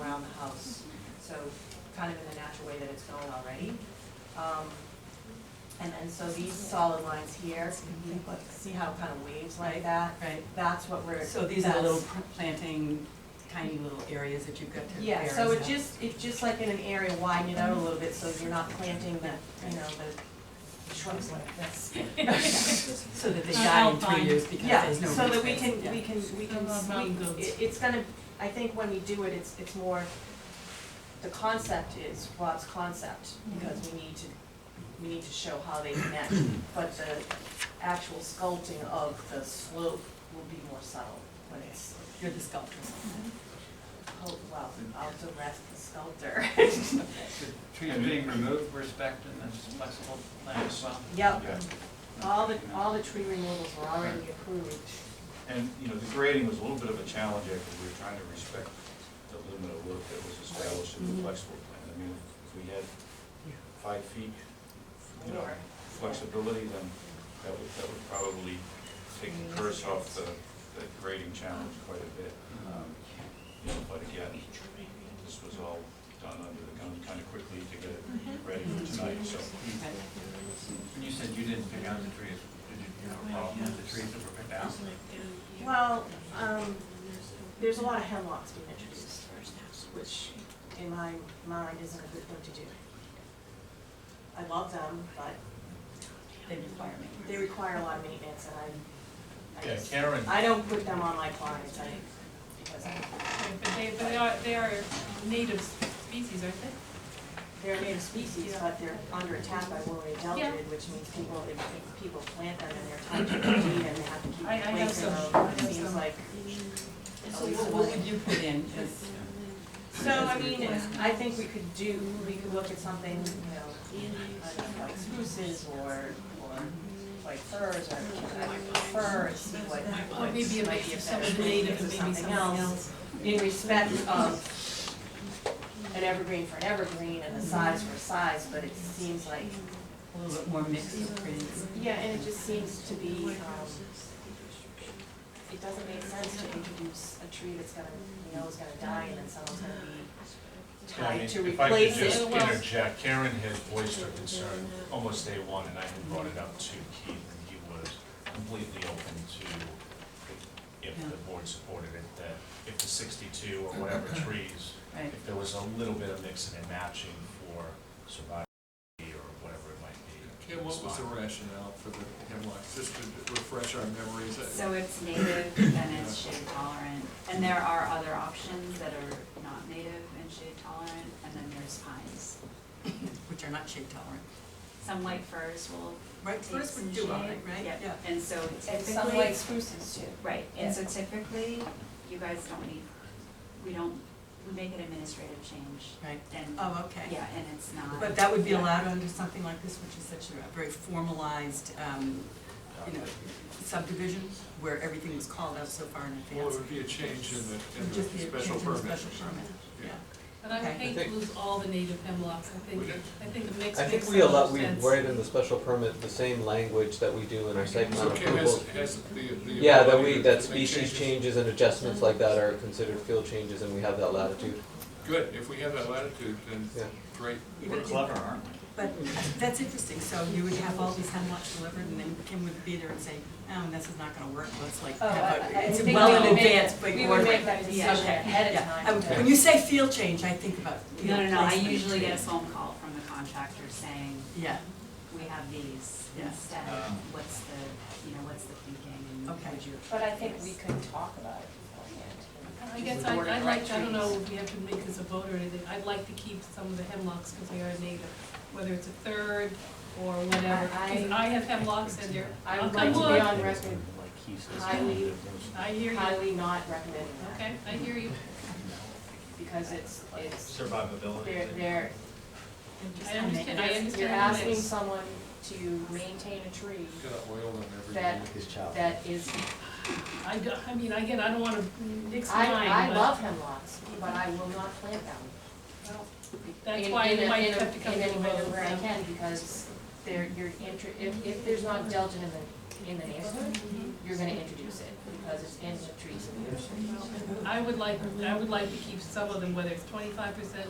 around the house. So kind of in the natural way that it's going already. Um, And then so these solid lines here, you Mhm. can look- see how it kind of waves like that? Right, That's what we're. so these are the that's- little pr- planting, tiny little areas that you've got to Yeah, bear so and it stuff. just, it just like in an area widen it out a little bit, so you're not planting the, you know, the shrubs like this. So that they Not die in alpine. three years because Yeah, there's no root so that we space. can, Yeah. we can, we can, Above mountain goats. we, it- it's gonna, I think when we do it, it's, it's more, the concept is Rob's concept, because we need to, we need to show how they connect, but the actual sculpting of the slope will be more subtle when it's, You're the sculptor. oh, well, I'll direct the sculptor. The Trees being removed, respect in this flexible plan as well. Yep, Yeah, all the, all the tree removals were already approved. and, you know, the grading was a little bit of a challenge there, because we were trying to respect the limit of work that was established in the flexible plan. I mean, if we had five feet, you know, More. flexibility, then that would, that would probably take the curse off the, the grading challenge quite a bit. Um, You know, but again, this was all done under the gun kind of quickly to get it ready for tonight, so. Right. When you said you didn't pick out the trees, did you, you have a problem with the trees that were picked out? Well, um, there's a lot of hemlocks being introduced, which in my mind isn't a good thing to do. I love them, but They require me. they require a lot of maintenance and I, I Yeah, just, Karen, I don't put them on my clients, I, because But they, but they are, they are native species, aren't they? they're a native species, but they're under attack by Willoughby Yeah. Delta, which means people, if, if people plant them and they're tied to the tree and they have to keep I- I have replacing some. I them, have it seems some. like. So what what would you put in as? So, I mean, I think we could do, we could look at something, you know, I don't know, like spruces or, or like firs or, I would prefer and see what Or might maybe be a a mix of some better of the tree natives or and maybe something something else. else. In respect of an evergreen for an evergreen and a size for a size, but it seems like, A little bit more mixed of trees. yeah, and it just seems to be, um, it doesn't make sense to introduce a tree that's gonna, you know, is gonna die and then someone's gonna be Yeah, I mean, tied to if I could replace it. just Well- interject, Karen had voiced her concern almost day one, and I had brought it up to Keith, and he was completely open to, if the board supported it, that if the sixty-two or whatever trees, Right. if there was a little bit of mixing and matching for survival or whatever it might be. Kim, what was the it's fine. rationale for the hemlocks, just to refresh our memories? I- So it's native and it's shade tolerant, and there are other options that are not native and shade tolerant, and then there's pines. Which are not shade tolerant. Some white firs will Right, take first some would shade. do all right, right? Yep. Yeah. And so And some white typically, spruces too. right, and so typically, you guys don't need, we don't, we make an administrative change. Right. And, Oh, okay. yeah, and it's not. But that would be allowed under something like this, which is such a very formalized, um, you know, subdivision, where everything was called out so far in Well, it advance. would be a change in the, in Would the just be a special change in the permit. special permit, yeah. But I would Okay. hate to lose all the native hemlocks, I think, Would it? I think a mix makes I think so we allow, much we sense. write in the special permit the same language that we do in our site plan So Kim has, approvals. has the, the. Yeah, that ability we, to that make species changes. changes and adjustments like that are considered field changes and we have that latitude. Good, if we have that latitude, then Yeah. great. We're clever, aren't we? But that's interesting, so you would have all these hemlocks delivered, and then Kim would be there and say, um, this is not gonna work, let's like, Oh, have I- I a- it's think well we in would make- advance, but we you would order make it. that Yeah, decision okay. ahead of Yeah. time. I would- When you say field change, I think about, you No, know, no, no, I placement of usually get a trees. phone call from the contractor saying, Yeah, we have these Yeah. instead, Um. what's the, you know, what's the thinking, and Okay. would you? But I think we could talk about it beforehand. I guess I, I'd like, I don't know if we have to make this a vote or anything, I'd like to keep some of the hemlocks because they are native, whether it's a third or whatever. 'Cause I have hemlocks and they're, I I'll would like come to be wood, on record highly, I hear you, highly not recommending that, okay, I hear you. because it's, it's, Survivability. they're, they're, I understand, I understand. you're the asking mix. someone to maintain a tree Got oil on everything. that, that is, I do, I mean, again, I don't wanna mix mine, I, I but- love hemlocks, but I will not plant them. Well, That's in- why in you a- might in a- have to come in to any a way vote, where I yeah. can, because there, you're inter, if, if there's not Delta in the in the neighborhood, Mm-hmm. you're gonna introduce it, because it's in the trees. I would like, I would like to keep some of them, whether it's twenty-five percent